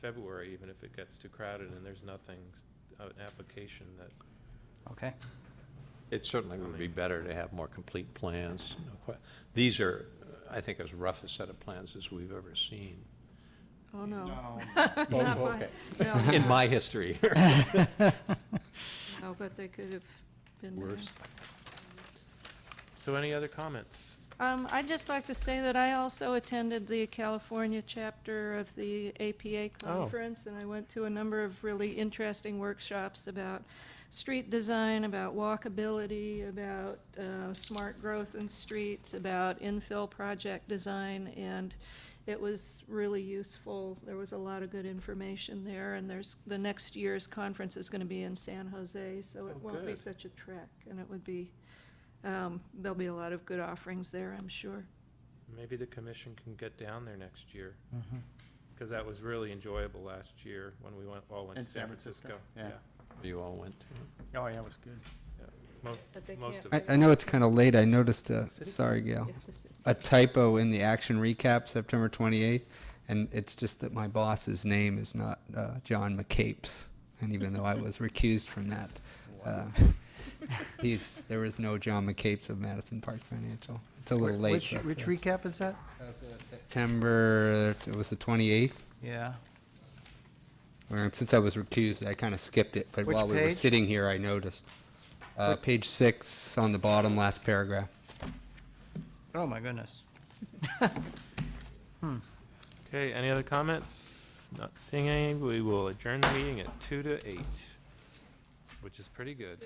February, even if it gets too crowded and there's nothing, uh, an application that Okay, It certainly would be better to have more complete plans. no que- These are, I think, as rough a set of plans as we've ever seen Oh, no. Oh, Not my- okay. No, in my history. no, but they could have been there. Worse. So any other comments? Um, I'd just like to say that I also attended the California chapter of the APA Oh. conference, and I went to a number of really interesting workshops about street design, about walkability, about uh, smart growth in streets, about infill project design, and it was really useful. There was a lot of good information there, and there's, the next year's conference is going to be in San Jose, so it Oh, won't be good. such a trek, and it would be um, There'll be a lot of good offerings there, I'm sure. Maybe the commission can get down there next year. Mm-hmm. Because that was really enjoyable last year when we went, all went In to San San Francisco. Francisco, yeah. You all went to. Oh, yeah, it was good. Mo- But they Most can't of I, us. I know it's kind of late. I noticed a, sorry, Gail, a typo in the action recap, September 28th. And it's just that my boss's name is not uh, John McCapes. And even though I was recused from that, uh, he's, there is no John McCapes of Madison Park Financial. It's a little late. Which, but, which uh, recap is that? September, it was the 28th. Yeah. Uh, Since I was recused, I kind of skipped it, but Which while we were page? sitting here, I noticed. Uh, Page six on the bottom, last paragraph. Oh, my goodness. Okay, any other comments? Not seeing any, we will adjourn the meeting at two to eight, which is pretty good.